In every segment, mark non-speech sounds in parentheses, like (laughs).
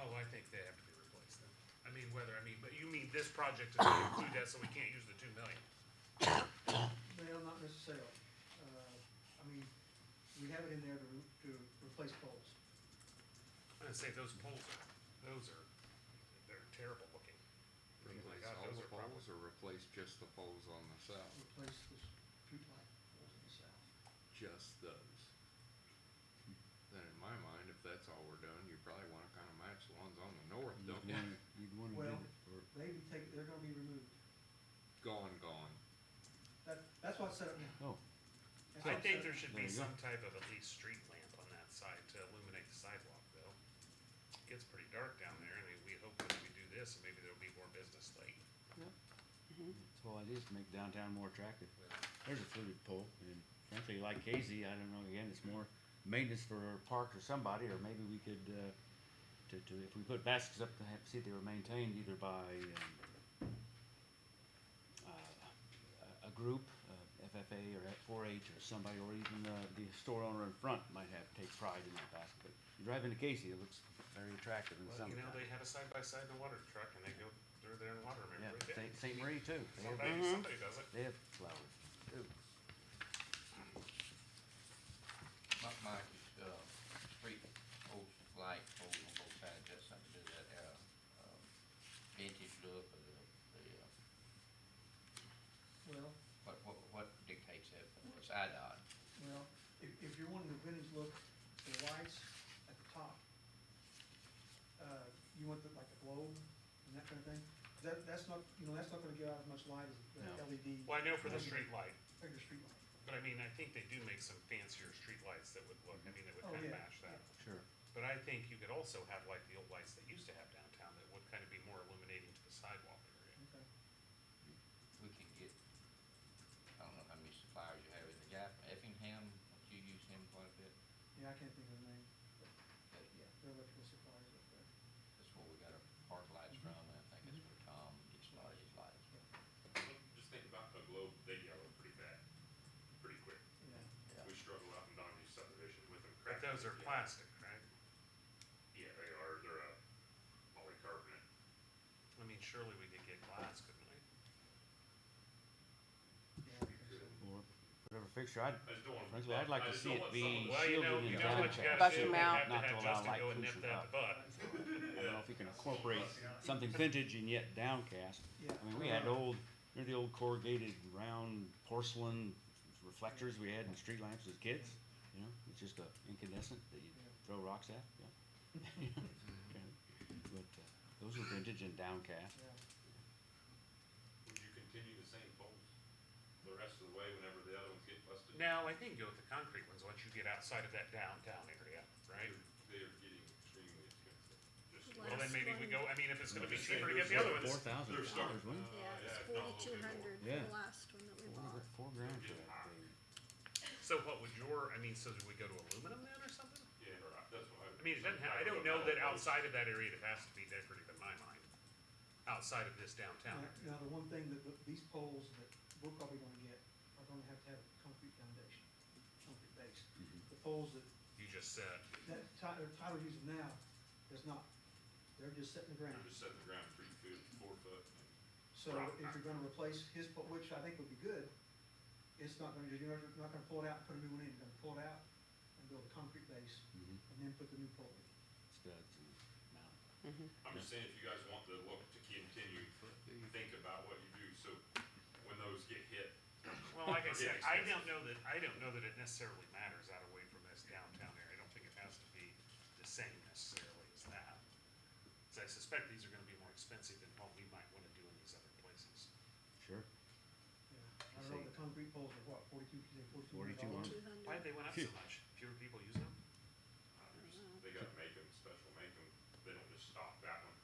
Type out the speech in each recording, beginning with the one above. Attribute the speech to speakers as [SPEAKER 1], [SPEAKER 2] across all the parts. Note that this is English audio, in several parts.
[SPEAKER 1] Oh, I think they have to be replaced then. I mean, whether, I mean, but you mean this project does not include that, so we can't use the two million?
[SPEAKER 2] Well, not necessarily. Uh, I mean, we have it in there to, re- to replace poles.
[SPEAKER 1] I'm gonna say those poles are, those are, they're terrible looking. I mean, my
[SPEAKER 3] Replace
[SPEAKER 1] God,
[SPEAKER 3] all
[SPEAKER 1] those
[SPEAKER 3] the
[SPEAKER 1] are probably-
[SPEAKER 3] poles or replace just the poles on the south?
[SPEAKER 2] replace the streetlight poles in the south.
[SPEAKER 3] Just those? Then in my mind, if that's all we're doing, you probably wanna kinda match the ones on the north,
[SPEAKER 4] You'd
[SPEAKER 3] don't you?
[SPEAKER 4] wanna, you'd wanna do
[SPEAKER 2] Well-
[SPEAKER 4] it for,
[SPEAKER 2] They would take, they're gonna be removed.
[SPEAKER 3] (laughs) Gone, gone.
[SPEAKER 2] That, that's what's set up now.
[SPEAKER 4] oh,
[SPEAKER 2] That's
[SPEAKER 1] I
[SPEAKER 2] what's
[SPEAKER 1] think
[SPEAKER 2] set
[SPEAKER 1] there
[SPEAKER 2] up.
[SPEAKER 1] should
[SPEAKER 4] There
[SPEAKER 1] be
[SPEAKER 4] you go.
[SPEAKER 1] some type of at least street lamp on that side to illuminate the sidewalk though. It Gets pretty dark down there, I mean, we hope that we do this, maybe there'll be more business late.
[SPEAKER 4] that's all it is, to make downtown more attractive. There's a fluted pole, and frankly, like Casey, I don't know, again, it's more maintenance for a park or somebody, or maybe we could, uh, to, to, if we put baskets up to have, see if they were maintained either by, um, uh, a a group, uh, FFA or F4H or somebody, or even uh, the store owner in front might have, take pride in that basket. But You drive into Casey, it looks very attractive in
[SPEAKER 1] Well,
[SPEAKER 4] some.
[SPEAKER 1] you know, they have a side by side in the water truck and they go, they're there in water,
[SPEAKER 4] Yeah,
[SPEAKER 1] remember? They-
[SPEAKER 4] Saint- Saint Marie too. They have-
[SPEAKER 1] Somebody, somebody does it.
[SPEAKER 4] They have flowers. too.
[SPEAKER 5] My, my, uh, street post light pole on both sides, that's something to do that, uh, um, vintage look of the, the, uh,
[SPEAKER 2] Well,
[SPEAKER 5] what, what, what dictates that? Well, It's IDOT.
[SPEAKER 2] well, if, if you're wanting the vintage look, the lights at the top, uh, you want the, like a globe and that kind of thing, that, that's not, you know, that's not gonna give out as much light as the
[SPEAKER 4] No.
[SPEAKER 2] LED.
[SPEAKER 1] Well, I know for the street light,
[SPEAKER 2] Bigger streetlight.
[SPEAKER 1] but I mean, I think they do make some fancier street lights that would look, I mean, that would
[SPEAKER 2] Oh,
[SPEAKER 1] kind of
[SPEAKER 2] yeah,
[SPEAKER 1] match that.
[SPEAKER 4] Sure.
[SPEAKER 1] But I think you could also have like the old lights they used to have downtown that would kind of be more illuminating to the sidewalk area.
[SPEAKER 2] okay.
[SPEAKER 5] We can get, I don't know how many suppliers you have, is the guy from Effingham, don't you use him quite a bit?
[SPEAKER 2] Yeah, I can't think of the name, but
[SPEAKER 5] That,
[SPEAKER 2] yeah, they're electrical suppliers up there.
[SPEAKER 5] that's where we got our park lights from, and I think that's where Tom gets a lot of his lights.
[SPEAKER 6] Just think about the globe, they yellow pretty bad, pretty quick.
[SPEAKER 2] Yeah,
[SPEAKER 6] We struggle out in Donny's subdivision with them.
[SPEAKER 1] But
[SPEAKER 6] cracking.
[SPEAKER 1] those are plastic, right?
[SPEAKER 6] Yeah, they are, they're a polycarbonate.
[SPEAKER 1] I mean, surely we could get glass, couldn't we?
[SPEAKER 2] yeah. I think so.
[SPEAKER 4] Or whatever fixture, I'd,
[SPEAKER 6] I just don't want.
[SPEAKER 4] frankly, I'd like to see it be
[SPEAKER 1] Well, you know,
[SPEAKER 4] shielded
[SPEAKER 1] you
[SPEAKER 4] and
[SPEAKER 1] know what
[SPEAKER 4] downcast.
[SPEAKER 1] you
[SPEAKER 4] I
[SPEAKER 1] gotta
[SPEAKER 7] Bust
[SPEAKER 1] do,
[SPEAKER 7] them
[SPEAKER 1] we
[SPEAKER 7] out.
[SPEAKER 1] have to
[SPEAKER 4] Not to
[SPEAKER 1] have
[SPEAKER 4] allow
[SPEAKER 1] Justin
[SPEAKER 4] light
[SPEAKER 1] go and nip
[SPEAKER 4] pollution
[SPEAKER 1] that in the butt.
[SPEAKER 4] don't know if you can incorporate something vintage and yet downcast. I mean, we had old, remember the old corrugated round porcelain reflectors we had in street lamps as kids? You know, it's just a incandescent that you throw rocks at, yeah. (laughs) Okay. But uh, those were vintage and downcast.
[SPEAKER 2] Yeah.
[SPEAKER 6] Would you continue the same poles the rest of the way whenever the other ones get busted?
[SPEAKER 1] Now, I think go with the concrete ones once you get outside of that downtown area, right?
[SPEAKER 6] They are getting extremely expensive. Just-
[SPEAKER 1] Well, then maybe we go, I mean, if it's gonna be
[SPEAKER 6] Just say
[SPEAKER 1] cheaper to get
[SPEAKER 6] there's
[SPEAKER 1] the other
[SPEAKER 6] like
[SPEAKER 4] Four
[SPEAKER 1] ones.
[SPEAKER 4] thousand
[SPEAKER 6] They're
[SPEAKER 4] dollars,
[SPEAKER 6] starting.
[SPEAKER 4] wasn't it?
[SPEAKER 7] Yeah, it's
[SPEAKER 6] Yeah, no, it'll
[SPEAKER 7] forty-two
[SPEAKER 6] be more.
[SPEAKER 7] hundred for the
[SPEAKER 4] Yeah.
[SPEAKER 7] last one that we
[SPEAKER 4] Four
[SPEAKER 7] bought.
[SPEAKER 4] gr- Four grand for that thing.
[SPEAKER 1] So what would your, I mean, so do we go to aluminum then or something?
[SPEAKER 6] Yeah, that's what I.
[SPEAKER 1] I mean, it doesn't have, I don't know that outside of that area it has to be decorative in my mind, outside of this downtown.
[SPEAKER 2] Now, now, the one thing that, that these poles that we're probably gonna get are gonna have to have a concrete foundation, concrete base. The
[SPEAKER 4] Mm-hmm.
[SPEAKER 2] poles that,
[SPEAKER 1] You just said,
[SPEAKER 2] that Tyler, Tyler using now is not, they're just setting the ground.
[SPEAKER 6] They're just setting the ground three foot, four foot.
[SPEAKER 2] So if you're gonna replace his, po- which I think would be good, it's not gonna, you're not- not gonna pull it out and put a new one in, you're gonna pull it out and build a concrete base
[SPEAKER 4] Mhm.
[SPEAKER 2] and then put the new pole in.
[SPEAKER 4] Studs and mount.
[SPEAKER 6] I'm just saying, if you guys want the look to continue, think about what you do, so when those get hit,
[SPEAKER 1] well, like I said,
[SPEAKER 6] Forget
[SPEAKER 1] I
[SPEAKER 6] expenses.
[SPEAKER 1] don't know that, I don't know that it necessarily matters out away from this downtown area. I don't think it has to be the same necessarily as that. Cause I suspect these are gonna be more expensive than what we might wanna do in these other places.
[SPEAKER 4] Sure.
[SPEAKER 2] Yeah. I don't know, the concrete poles are what, forty-two, you say forty-two hundred dollars?
[SPEAKER 4] 42 on.
[SPEAKER 7] Two
[SPEAKER 1] Why
[SPEAKER 7] hundred.
[SPEAKER 1] did they went up so much? Fewer people using them?
[SPEAKER 6] they gotta make them special, make them, they don't just stop that one.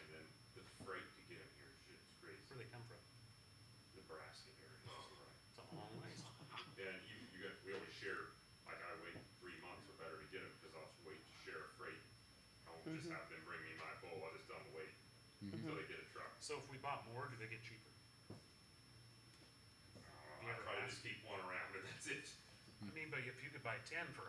[SPEAKER 6] And then the freight to get them here is just
[SPEAKER 1] Where
[SPEAKER 6] crazy,
[SPEAKER 1] they come from?
[SPEAKER 6] Nebraska area, is right.
[SPEAKER 1] It's a long ways.
[SPEAKER 6] And you, you got, we always share, like I wait three months or better to get them, cause I'll wait to share a freight. I won't just have them bring me my bowl, I just don't wait until they get a truck.
[SPEAKER 1] So if we bought more, do they get cheaper?
[SPEAKER 6] Uh, I probably just keep one around, and that's it.
[SPEAKER 1] Hmm. I mean, but if you could buy ten for